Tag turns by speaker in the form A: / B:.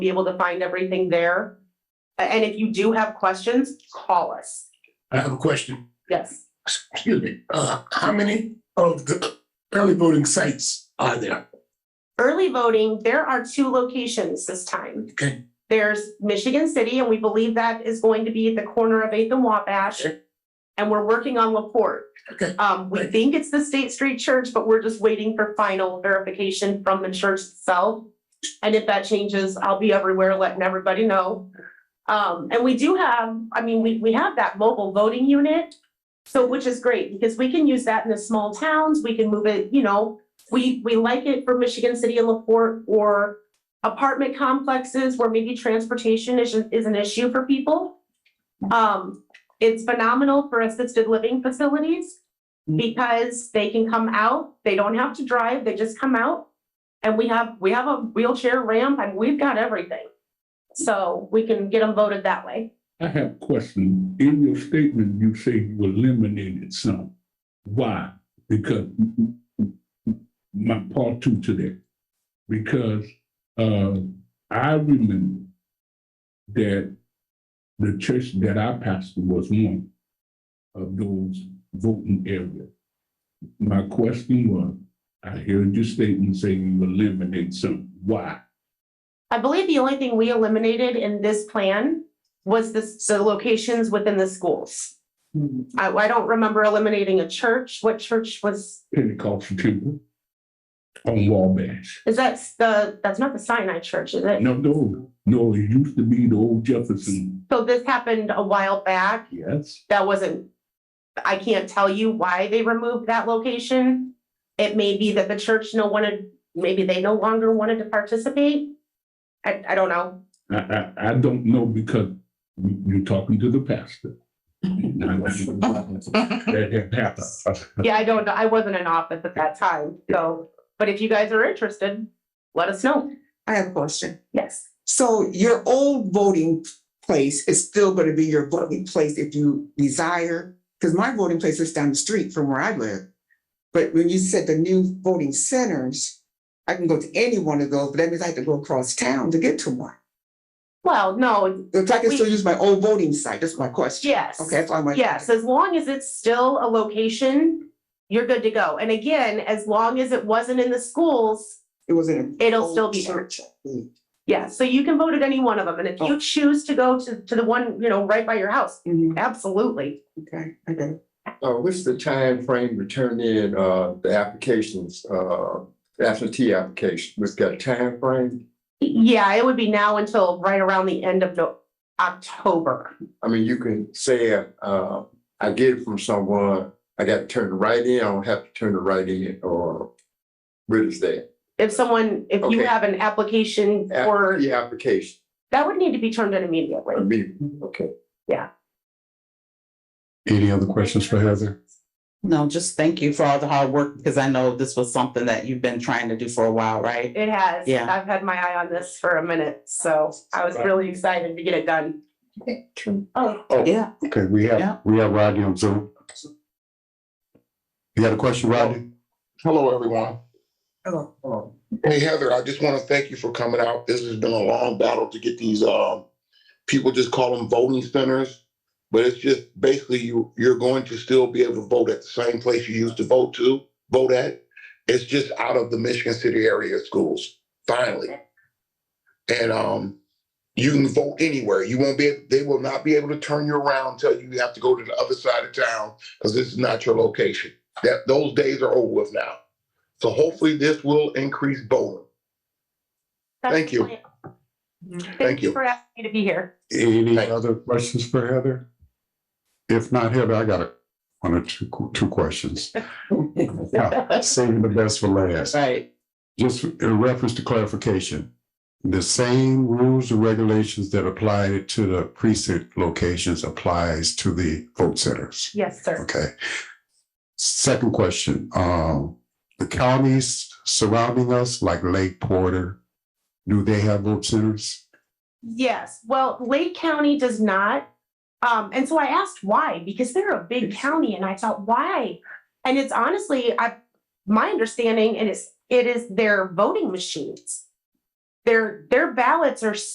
A: be able to find everything there. A- And if you do have questions, call us.
B: I have a question.
A: Yes.
B: Excuse me. Uh, how many of the early voting sites are there?
A: Early voting, there are two locations this time.
B: Okay.
A: There's Michigan City, and we believe that is going to be at the corner of Eighth and Wabash.
B: Sure.
A: And we're working on Laporte.
B: Okay.
A: Um, we
B: Right.
A: think it's the State Street Church, but we're just waiting for final verification from the church itself. And if that changes, I'll be everywhere letting everybody know. Um, and we do have, I mean, we, we have that mobile voting unit. So, which is great because we can use that in the small towns. We can move it, you know, we, we like it for Michigan City and Laporte or apartment complexes where maybe transportation is, is an issue for people. Um, it's phenomenal for assisted living facilities because they can come out, they don't have to drive, they just come out. And we have, we have a wheelchair ramp and we've got everything. So we can get them voted that way.
C: I have a question. In your statement, you say you eliminated some. Why? Because my part two to that. Because uh, I remember that the church that I pastored was one of those voting areas. My question was, I heard your statement saying you eliminate some. Why?
A: I believe the only thing we eliminated in this plan was this, the locations within the schools. I, I don't remember eliminating a church. What church was,
C: Pentecostal temple on Wabash.
A: is that the, that's not the Sinai Church, is it?
C: No, no, no, it used to be the old Jefferson.
A: So this happened a while back.
C: Yes.
A: that wasn't, I can't tell you why they removed that location. It may be that the church no wanted, maybe they no longer wanted to participate. I, I don't know.
C: I, I, I don't know because you- you're talking to the pastor.
D: Uh,
C: That had happened.
A: Yeah, I don't, know. I wasn't in office at that time, so, but if you guys are interested, let us know.
E: I have a question.
A: Yes.
E: So your old voting place is still gonna be your voting place if you desire? Because my voting place is down the street from where I live. But when you said the new voting centers, I can go to any one of those, but that means I have to go across town to get to one.
A: Well, no,
E: If I can still
A: We-
E: use my old voting site, that's my question.
A: yes.
E: Okay, that's all my.
A: Yes, as long as it's still a location, you're good to go. And again, as long as it wasn't in the schools,
E: It was in. a-
A: It'll still be there. yeah, so you can vote at any one of them. And if
D: Oh.
A: you choose to go to, to the one, you know, right by your house,
E: Mhm,
A: Absolutely.
E: okay, okay.
D: Uh, what's the time frame to turn in, uh, the applications, uh, absentee application? We've got a timeframe.
A: Yeah, it would be now until right around the end of No- October.
D: I mean, you can say, uh, I get it from someone, I got to turn it right in, I don't have to turn it right in, or where is that?
A: If someone, if you
D: Okay.
A: have an application
D: After
A: or,
D: the application,
A: that would need to be turned in immediately.
D: I mean, okay.
F: Any other questions for Heather?
G: No, just thank you for all the hard work, because I know this was something that you've been trying to do for a while, right?
A: It has.
G: Yeah.
A: I've had my eye on this for a minute, so I was really excited to get it done. Oh,
G: Yeah.
F: Okay, we
G: Yeah.
F: have, we have Rodney on Zoom. You got a question, Rodney?
H: Hello, everyone.
E: Hello.
D: Oh,
H: Hey, Heather, I just want to thank you for coming out. This has been a long battle to get these, um, people just call them voting centers. But it's just basically you, you're going to still be able to vote at the same place you used to vote to, vote at. It's just out of the Michigan City area schools, finally. And, um, you can vote anywhere. You won't be, they will not be able to turn you around, tell you you have to go to the other side of town because this is not your location. That, those days are over with now. So hopefully this will increase voting.
A: that's
H: Thank you.
A: the plan. Thank
H: Thank
A: you
H: you.
A: for asking me to be here.
F: Any
H: Thank-
F: other questions for Heather? If not, Heather, I got a, one or two, two questions. Yeah, Saving the best for last.
G: Right,
F: Just in reference to clarification, the same rules and regulations that apply to the precinct locations applies to the vote centers.
A: Yes, sir.
F: Okay. Second question, um, the counties surrounding us, like Lake Porter, do they have vote centers?
A: Yes, well, Lake County does not. Um, and so I asked why, because they're a big county and I thought, why? And it's honestly, I, my understanding, and it's, it is their voting machines. Their, their ballots are